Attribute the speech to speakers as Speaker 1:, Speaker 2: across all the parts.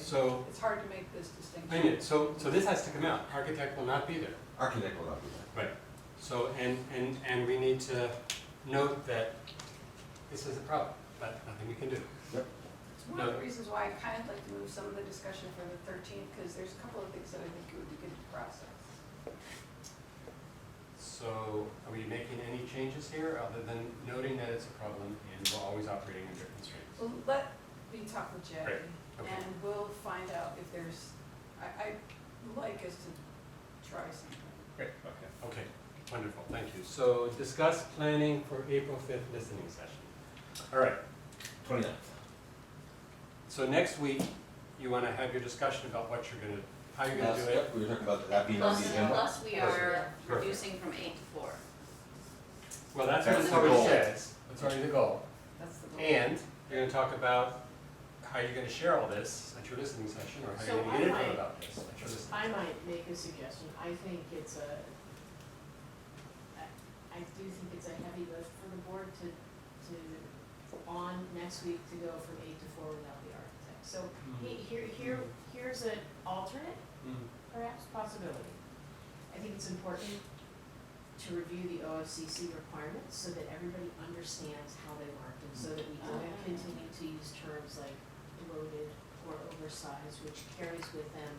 Speaker 1: so,
Speaker 2: It's hard to make this distinction.
Speaker 1: I mean, so, so this has to come out, architect will not be there.
Speaker 3: Architect will not be there.
Speaker 1: So, and, and, and we need to note that this is a problem, but nothing we can do.
Speaker 2: It's one of the reasons why I kind of like to move some of the discussion for the thirteenth, because there's a couple of things that I think would be good to process.
Speaker 1: So, are we making any changes here, other than noting that it's a problem and we're always operating under constraints?
Speaker 2: Well, let me talk with Jay,
Speaker 1: Right, okay.
Speaker 2: and we'll find out if there's, I, I'd like us to try something.
Speaker 1: Great, okay. Okay, wonderful, thank you. So, discuss planning for April fifth listening session. All right,
Speaker 3: Twenty-nine.
Speaker 1: so next week, you wanna have your discussion about what you're gonna, how you're gonna do it?
Speaker 3: Yep, we were talking about that being on the
Speaker 4: Plus,
Speaker 3: agenda.
Speaker 4: plus we are
Speaker 1: Perfect.
Speaker 4: reducing from eight to four.
Speaker 1: Well, that's what
Speaker 3: That's
Speaker 1: it's
Speaker 3: the
Speaker 1: already
Speaker 3: goal.
Speaker 1: says, it's already the goal.
Speaker 2: That's the goal.
Speaker 1: And you're gonna talk about how you're gonna share all this at your listening session, or how you're
Speaker 5: So
Speaker 1: gonna
Speaker 5: I
Speaker 1: get info
Speaker 5: might-
Speaker 1: about this at your listening.
Speaker 5: I might make a suggestion, I think it's a, I, I do think it's a heavy lift for the board to, to, on next week to go from eight to four without the architect. So
Speaker 1: Mm-hmm.
Speaker 5: he, here, here, here's an alternate, perhaps, possibility. I think it's important to review the OFCC requirements so that everybody understands how they work and so that we don't
Speaker 2: Mm.
Speaker 4: Ah.
Speaker 5: continue to use terms like bloated or oversized, which carries with them,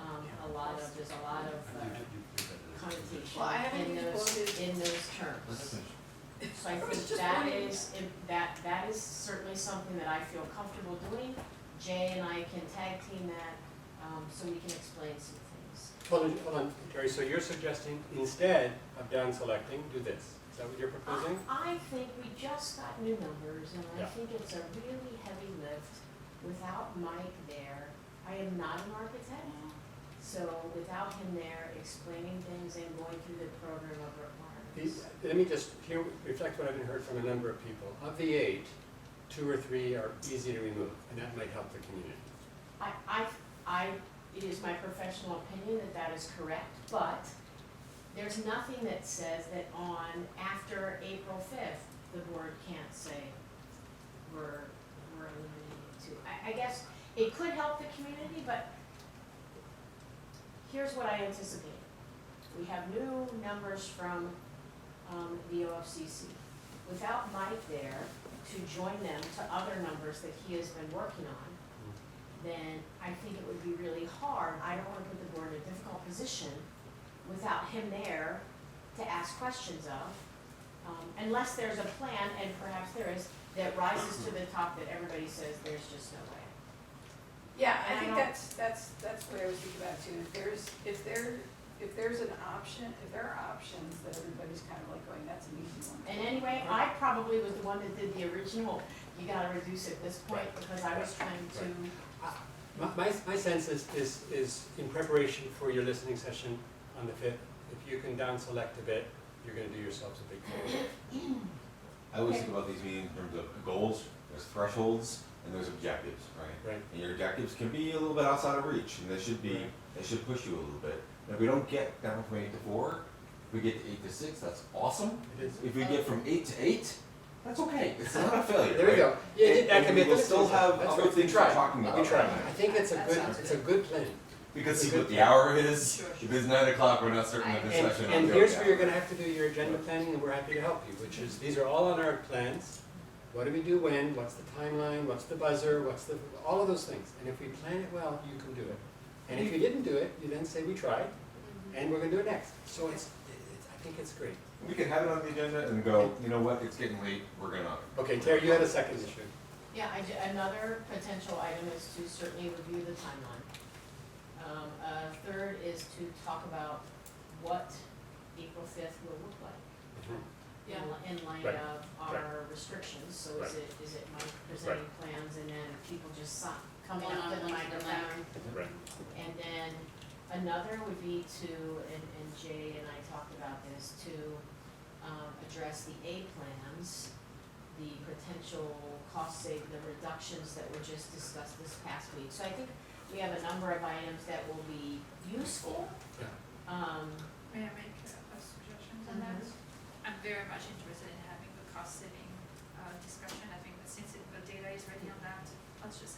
Speaker 5: um, a lot of, there's a lot of uh,
Speaker 2: Well, I
Speaker 5: connotation
Speaker 2: haven't
Speaker 5: in
Speaker 2: used
Speaker 5: those,
Speaker 2: bloated.
Speaker 5: in those
Speaker 3: Let's
Speaker 5: terms.
Speaker 3: finish.
Speaker 5: So I
Speaker 2: I was
Speaker 5: think
Speaker 2: just
Speaker 5: that
Speaker 2: wondering.
Speaker 5: is, if that, that is certainly something that I feel comfortable doing. Jay and I can tag team that, um, so we can explain some things.
Speaker 1: Hold on, hold on, Terry, so you're suggesting instead of down selecting, do this, is that what you're proposing?
Speaker 5: I think we just got new numbers, and I
Speaker 1: Yeah.
Speaker 5: think it's a really heavy lift without Mike there. I am not an architect, so without him there explaining things and going through the program of requirements.
Speaker 1: These- Let me just, here, reflect what I've heard from a number of people, of the eight, two or three are easy to remove, and that might help the community.
Speaker 5: I, I, I, it is my professional opinion that that is correct, but there's nothing that says that on, after April fifth, the board can't say we're, we're eliminating two. I, I guess it could help the community, but here's what I anticipate. We have new numbers from, um, the OFCC. Without Mike there to join them to other numbers that he has been working on, then I think it would be really hard, I don't wanna put the board in a difficult position without him there to ask questions of. Um, unless there's a plan, and perhaps there is, that rises to the top that everybody says there's just no way.
Speaker 2: Yeah,
Speaker 5: And
Speaker 2: I
Speaker 5: I
Speaker 2: think
Speaker 5: don't-
Speaker 2: that's, that's, that's what I was thinking about too. If there's, if there, if there's an option, if there are options that everybody's kind of like going, that's an easy one.
Speaker 5: And anyway, I probably was the one that did the original, you gotta reduce at this point,
Speaker 1: Right.
Speaker 5: because I was trying to,
Speaker 1: My, my, my sense is, is, is in preparation for your listening session on the fifth, if you can down select a bit, you're gonna do yourselves a big favor.
Speaker 3: I always think about these meetings in terms of goals, there's thresholds, and there's objectives, right?
Speaker 1: Right.
Speaker 3: And your objectives can be a little bit outside of reach, and they should be,
Speaker 1: Right.
Speaker 3: they should push you a little bit. And if we don't get down from eight to four, if we get to eight to six, that's awesome.
Speaker 1: It is.
Speaker 3: If we get from eight to eight, that's okay, it's not a failure,
Speaker 1: There we
Speaker 3: right?
Speaker 1: go. Yeah,
Speaker 3: And-
Speaker 1: that can
Speaker 3: and
Speaker 1: be
Speaker 3: we
Speaker 1: a
Speaker 3: will
Speaker 1: good
Speaker 3: still
Speaker 1: solution.
Speaker 3: have
Speaker 1: That's
Speaker 3: other
Speaker 1: right.
Speaker 3: things we're talking about.
Speaker 1: We try.
Speaker 3: right?
Speaker 1: I think it's a
Speaker 2: That
Speaker 1: good,
Speaker 2: sounds
Speaker 1: it's a good plan.
Speaker 3: We can
Speaker 1: It's
Speaker 3: see
Speaker 1: a
Speaker 3: what
Speaker 1: good
Speaker 3: the hour is,
Speaker 4: Sure,
Speaker 3: if it's nine o'clock, we're not certain of
Speaker 4: And-
Speaker 3: this
Speaker 1: And,
Speaker 3: session.
Speaker 1: and
Speaker 3: until
Speaker 1: here's
Speaker 3: the
Speaker 1: where you're
Speaker 3: hour.
Speaker 1: gonna have to do your agenda planning, and we're happy to help you, which is, these are all on our plans. What do we do when, what's the timeline, what's the buzzer, what's the, all of those things. And if we plan it well, you can do it. And if you didn't do it, you then say, we tried, and we're gonna do it next. So it's, it's, I think it's great.
Speaker 3: We can have it on the agenda and go, you know what, it's getting late, we're gonna.
Speaker 1: Okay, Terry, you had a second issue.
Speaker 5: yeah, I, ju- another potential item is to certainly review the timeline. Um, a third is to talk about what April fifth will look like. in
Speaker 4: Yeah.
Speaker 5: li- in light
Speaker 1: Mm-hmm. Right,
Speaker 5: of our restrictions, so is
Speaker 1: Right.
Speaker 5: it, is it Mike presenting plans and then people just si- coming up to the
Speaker 4: One-on-one to the
Speaker 5: microphone?
Speaker 1: Right.
Speaker 5: And then another would be to, and, and Jay and I talked about this, to, um, address the A plans, the potential cost save, the reductions that were just discussed this past week. So I think we have a number of items that will be useful.
Speaker 1: Yeah.
Speaker 5: Um,
Speaker 6: May I make a a suggestion on that? I'm very much interested in having the cost saving uh, discussion. I think that since it- the data is ready on that, let's just